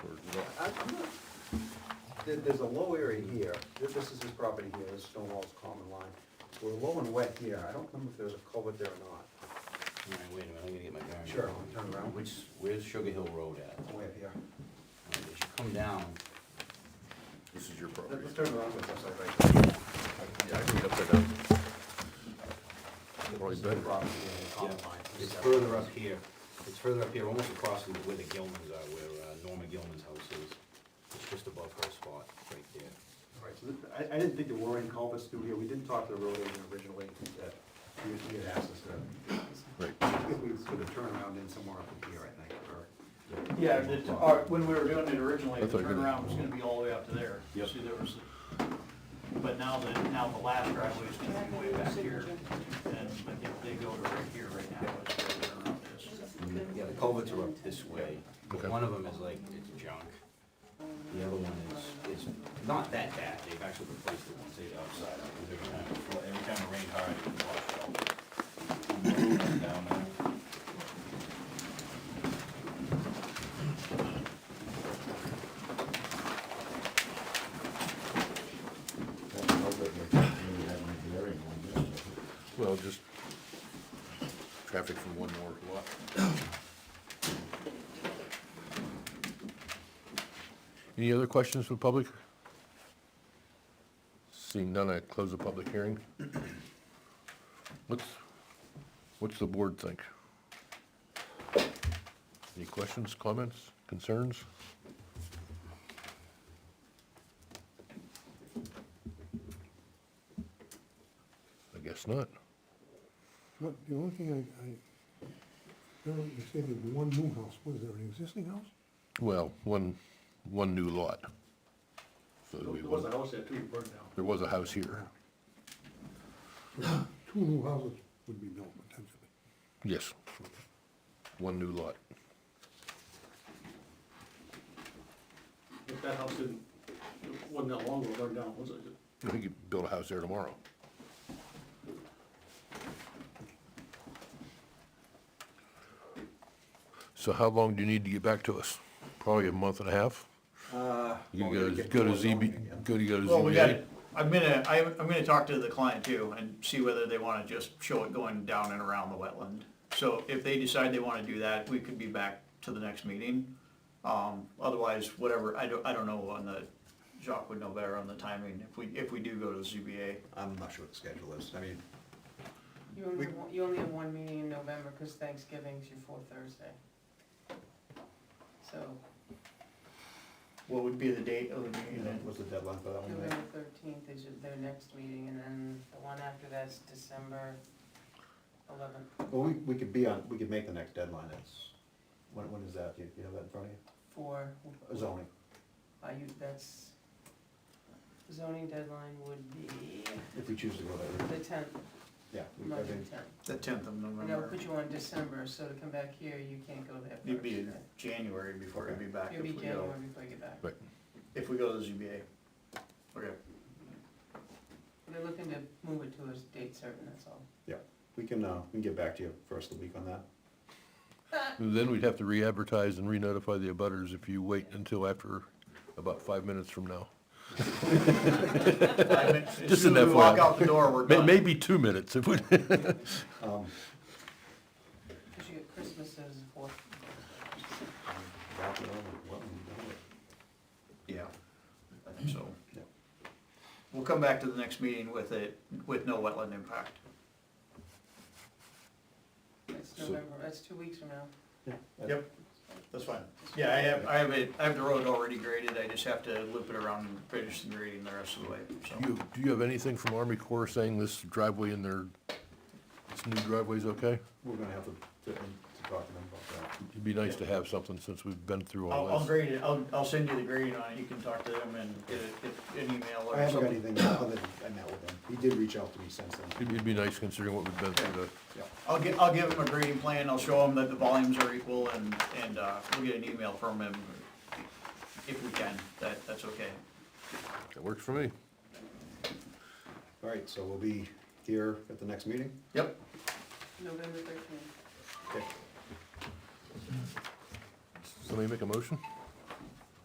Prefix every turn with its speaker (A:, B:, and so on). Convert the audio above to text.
A: Yeah, I- I'm not- there- There's a low area here, This- this is his property here, this stone wall's common line. We're low and wet here, I don't remember if there's a culvert there or not,
B: All right, wait a minute, I'm gonna get my bearings.
A: Sure, I'll turn around.
B: Which, where's Sugar Hill Road at? All
A: It's way up here.
B: right, As you come down,
C: This is your property.
A: Let's turn around with us, I'd like to-
C: Yeah, I can get upside down. Probably
A: This is the
C: better.
A: property here, the common line.
B: it's further up here, it's further up here, almost across from where the Gilmans are, where uh, Norma Gilman's house is. It's just above her spot, right there.
A: All right, so th- I, I didn't think there were any culverts through here, we didn't talk to the road agent originally, that he had- he had asked us to,
C: Right.
A: if we sort of turn around in somewhere up here, I think, or.
D: Yeah, the, t- our- when we were doing it originally,
C: That's
D: the
C: what I did.
D: turnaround was gonna be all the way up to there.
B: Yep.
D: See, there was, but now the, now the last driveway is gonna be way back here. And, but if they go to right here right now, it's where the turnaround is.
B: Yeah, the culverts are up this way, but
C: Okay.
B: one of them is like, it's junk. The other one is, it's not that bad, they've actually replaced the ones they've outside, because every time, it flo- every time it rained hard, it would wash out. Down there.
C: Well, just traffic from one more lot. Any other questions from public? Seeing none, I close the public hearing. What's, what's the board think? Any questions, comments, concerns? I guess not.
E: What, the only thing I, I, remember you said there was one new house, was there an existing house?
C: Well, one, one new lot. So we,
D: a house that too, burned down.
C: there was a house here.
E: Two new houses would be built potentially.
C: Yes. One new lot.
D: If that house didn't, wasn't that long ago burned down, was it?
C: I think you build a house there tomorrow. So how long do you need to get back to us? Probably a month and a half?
A: Uh,
C: You
A: well, we gotta
C: go,
A: get
C: go to
A: more zoning
C: ZB,
A: again.
C: go to, go to
D: Well, we got,
C: ZBA?
D: I'm gonna, I, I'm gonna talk to the client too and see whether they wanna just show it going down and around the wetland. So if they decide they wanna do that, we could be back to the next meeting. Um, otherwise, whatever, I don't, I don't know on the, Jacques would know better on the timing, if we, if we do go to ZBA.
A: I'm not sure what the schedule is, I mean,
F: You only, have one- you only have one meeting in November, because Thanksgiving's your fourth Thursday. So,
D: What would be the date of the meeting then?
A: what's the deadline for that one?
F: November thirteenth is your- their next meeting, and then the one after that's December eleventh.
A: Well, we, we could be on, we could make the next deadline, it's, when, when is that, do you, you have that in front of you? Uh,
F: For,
A: Zoning,
F: are you, that's, zoning deadline would be
A: if we choose to go that route,
F: the tenth,
A: yeah. we- I
F: Monday
A: think-
F: the tenth.
D: The tenth of
F: And they'll
D: November.
F: put you on December, so to come back here, you can't go there first.
D: It'd be in January before it'd be back if
F: It'll be
D: we go,
F: January before you get back.
D: if we go to ZBA. Okay.
F: They're looking to move it to a date certain, that's all.
A: We can, uh, we can get back to you first of the week on that.
C: Then we'd have to re-advertise and re-notify the abutters if you wait until after, about five minutes from now.
D: Five minutes. As
C: Just
D: soon
C: an
D: as we walk
C: FYI.
D: out the door, we're
C: May-
D: done.
C: Maybe two minutes if we,
A: Um,
F: Because you get Christmas as a fourth
A: wrap it up, what we've done with-
D: Yeah, I think so.
A: Yep.
D: We'll come back to the next meeting with it, with no wetland impact.
F: That's
C: So-
F: November, that's two weeks from now.
A: Yeah, that-
D: Yep. That's fine. Yeah, I have, I have it, I have the road already graded, I just have to loop it around and finish the grading the rest of the way, so.
C: you, do you have anything from Army Corps saying this driveway in their, this new driveway's okay?
A: We're gonna have to, to, to talk to them about that.
C: It'd be nice to have something since we've been through
D: I'll, I'll
C: all this.
D: grade it, I'll, I'll send you the grading on it, you can talk to them and get it, get an
A: I
D: email or
A: haven't got
D: something.
A: anything other than I met with him, he did reach out to me since then.
C: It'd be- It'd be nice considering what we've been through. to-
A: Yeah.
D: I'll get, I'll give them a grading plan, I'll show them that the volumes are equal and, and, uh, we'll get an email from him if we can, that, that's okay.
C: That works for me.
A: All right, so we'll be here at the next meeting?
D: Yep.
F: November thirteenth.
A: Okay.
C: Somebody make a motion?